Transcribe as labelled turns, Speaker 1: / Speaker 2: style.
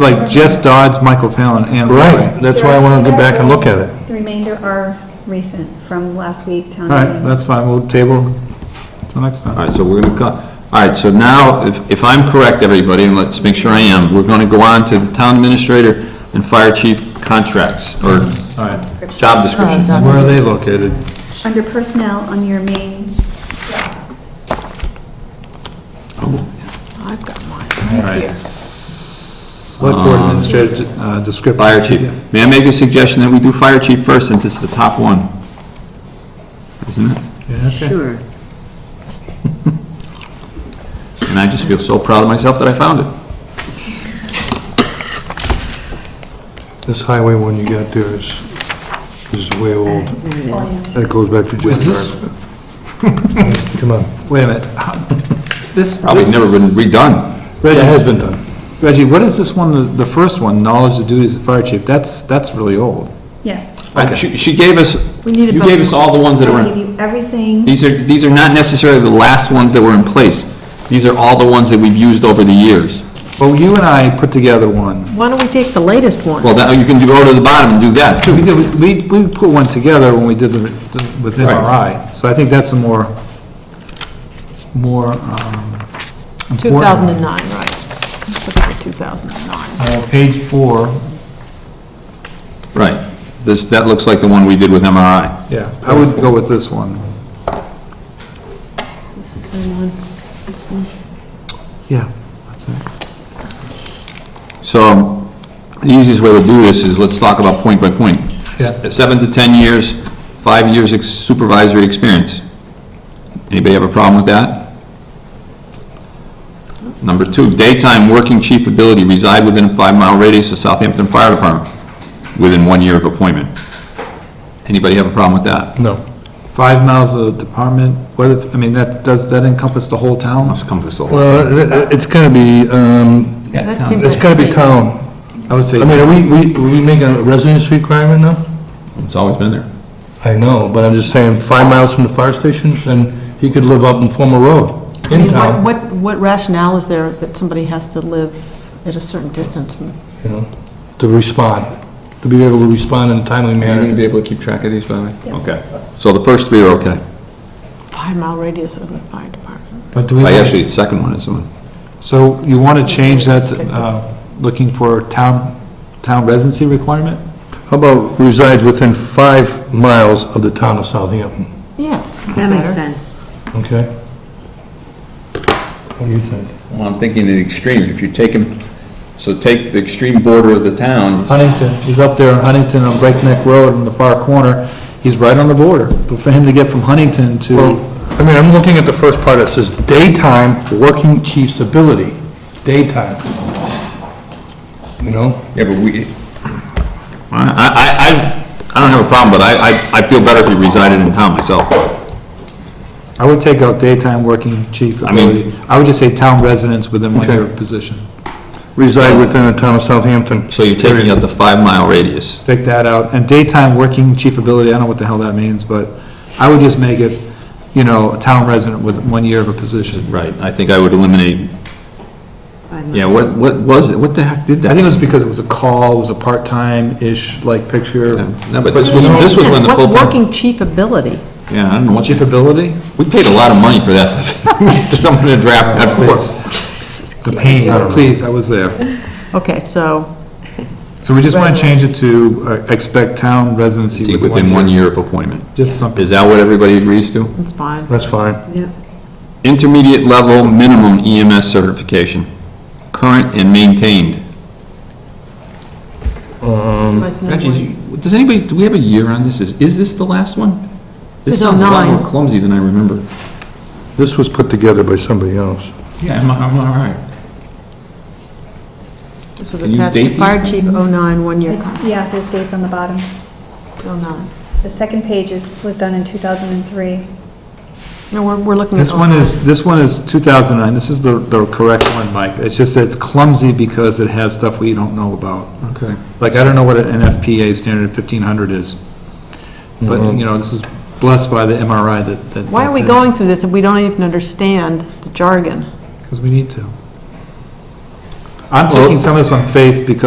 Speaker 1: It's like Jess Dodds, Michael Fallon, and.
Speaker 2: Right, that's why I want to go back and look at it.
Speaker 3: The remainder are recent, from last week, town
Speaker 1: All right,
Speaker 3: meeting.
Speaker 1: that's fine, we'll table till next
Speaker 4: All
Speaker 1: time.
Speaker 4: right, so we're going to, all right, so now, if if I'm correct, everybody, and let's make sure I am, we're going to go on to the town administrator and fire chief contracts, or
Speaker 1: All right,
Speaker 3: Description.
Speaker 4: job descriptions.
Speaker 5: Oh,
Speaker 1: where are they located?
Speaker 3: Under personnel, on your main,
Speaker 5: I've got mine.
Speaker 1: All right, select board administrator, uh, description.
Speaker 4: Um, Fire chief. May I make a suggestion that we do fire chief first, since it's the top one? Isn't it?
Speaker 1: Yeah, okay.
Speaker 5: Sure.
Speaker 4: And I just feel so proud of myself that I found it.
Speaker 2: This highway one you got there is, is way old.
Speaker 5: There it is.
Speaker 2: That goes back to
Speaker 1: Is this-
Speaker 2: Jess Dodds. Come on.
Speaker 1: Wait a minute, how- this.
Speaker 4: Probably
Speaker 1: this-
Speaker 4: never been redone.
Speaker 2: That has
Speaker 1: Reggie,
Speaker 2: been done.
Speaker 1: Reggie, what is this one, the- the first one, knowledge of duties of fire chief, that's, that's really old.
Speaker 3: yes.
Speaker 4: I- She she gave us,
Speaker 5: We need a
Speaker 4: you gave us all the ones that are
Speaker 3: I'll
Speaker 4: in.
Speaker 3: give you everything,
Speaker 4: These are, these are not necessarily the last ones that were in place. These are all the ones that we've used over the years.
Speaker 1: Well, you and I put together one.
Speaker 5: Why don't we take the latest one?
Speaker 4: Well, that, you can go to the bottom and do that,
Speaker 1: We
Speaker 4: too.
Speaker 1: did, we, we put one together when we did the, the- with MRI, so I think that's a more, more, um. important one.
Speaker 5: 2009, right. Let's look at the 2009.
Speaker 1: Uh, Page four,
Speaker 4: Right. This, that looks like the one we did with MRI.
Speaker 1: yeah, I would go with this one. Yeah, that's it.
Speaker 4: So the easiest way to do this is let's talk about point by point.
Speaker 1: Yeah.
Speaker 4: S- Seven to 10 years, five years ex- supervisory experience. Anybody have a problem with that? Number two, daytime working chief ability reside within a five-mile radius of Southampton Fire Department within one year of appointment. Anybody have a problem with that?
Speaker 2: No.
Speaker 1: Five miles of department, what if, I mean, that, does that encompass the whole town?
Speaker 4: Must compass the whole.
Speaker 2: Well, it- it- it's gotta be, um,
Speaker 5: That seems
Speaker 2: it's gotta be
Speaker 5: like-
Speaker 2: town.
Speaker 1: I would say,
Speaker 2: I mean, are we, we, are we making a residence requirement now?
Speaker 4: It's always been there.
Speaker 2: I know, but I'm just saying, five miles from the fire station, then he could live up in Fulmer Road,
Speaker 5: I
Speaker 2: in
Speaker 5: mean,
Speaker 2: town.
Speaker 5: what- What, what rationale is there that somebody has to live at a certain distance? from-
Speaker 2: you know, to respond, to be able to respond in a timely manner.
Speaker 4: be able to keep track of these, by Okay. So the first three are okay.
Speaker 5: Five-mile radius of the fire department.
Speaker 1: but do we,
Speaker 4: I Actually, the second one is the one.
Speaker 1: so you want to change that, to, uh, looking for town, town residency requirement?
Speaker 2: How about resides within five miles of the town of Southampton,
Speaker 5: Yeah.
Speaker 6: That makes
Speaker 5: better.
Speaker 6: sense.
Speaker 2: okay? What do you think?
Speaker 4: Well, I'm thinking the extreme, if you take him, so take the extreme border of the town,
Speaker 1: Huntington, he's up there on Huntington on Breakneck Road in the far corner, he's right on the border, but for him to get from Huntington
Speaker 2: Well,
Speaker 1: to,
Speaker 2: I mean, I'm looking at the first part that says daytime working chief's ability, daytime. You know,
Speaker 4: yeah, but we... I, I, I- I don't have a problem, but I, I I feel better if he resided in town myself.
Speaker 1: I would take out daytime working chief
Speaker 4: I mean-
Speaker 1: ability, I would just say town residents within one year of
Speaker 2: Okay.
Speaker 1: position.
Speaker 2: reside within the town of Southampton.
Speaker 4: So you're taking out the five-mile radius.
Speaker 1: Take that out, and daytime working chief ability, I don't know what the hell that means, but I would just make it, you know, a town resident with one year of a position.
Speaker 4: Right, I think I would eliminate,
Speaker 6: I'm-
Speaker 4: yeah, what, what was it, what the heck did
Speaker 1: I
Speaker 4: that?
Speaker 1: think it was because it was a call, it was a part-time-ish like picture.
Speaker 4: No, but this was, this was when the
Speaker 5: What
Speaker 4: full town...
Speaker 5: Working chief ability.
Speaker 4: Yeah, I don't know what
Speaker 1: Chief
Speaker 4: you,
Speaker 1: ability?
Speaker 4: we paid a lot of money for that, to someone to draft that for us.
Speaker 1: The pain, please, I was there.
Speaker 5: Okay, so,
Speaker 1: So we just want to change it to uh, expect town residency
Speaker 4: Within one year of appointment.
Speaker 1: Just something.
Speaker 4: Is that what everybody agrees to?
Speaker 5: it's fine.
Speaker 2: That's fine.
Speaker 6: Yeah.
Speaker 4: Intermediate level minimum EMS certification, current and maintained.
Speaker 5: But no
Speaker 4: Um, Reggie,
Speaker 5: one-
Speaker 4: is you- does anybody, do we have a year on this? Is, is this the last one? This
Speaker 5: It's
Speaker 4: sounds a lot
Speaker 5: 09.
Speaker 4: more clumsy than I remember.
Speaker 2: This was put together by somebody else.
Speaker 4: Yeah, I'm, I'm all right.
Speaker 5: This was
Speaker 4: Can you
Speaker 5: attached
Speaker 4: date
Speaker 5: to
Speaker 4: these?
Speaker 5: fire chief 09, one-year contract,
Speaker 3: yeah, there's dates on the bottom.
Speaker 5: 09.
Speaker 3: The second page is, was done in 2003.
Speaker 5: No, we're, we're looking at. oh
Speaker 1: This one is, this one is 2009, this is the, the correct one, Mike. It's just that it's clumsy because it has stuff we don't know about.
Speaker 4: Okay.
Speaker 1: Like, I don't know what an NFPA standard 1500 is, but, you know, this is blessed by the MRI that, that.
Speaker 5: Mm-hmm. Why are we going through this if we don't even understand the jargon?
Speaker 1: Because we need to. I'm taking some of this on faith because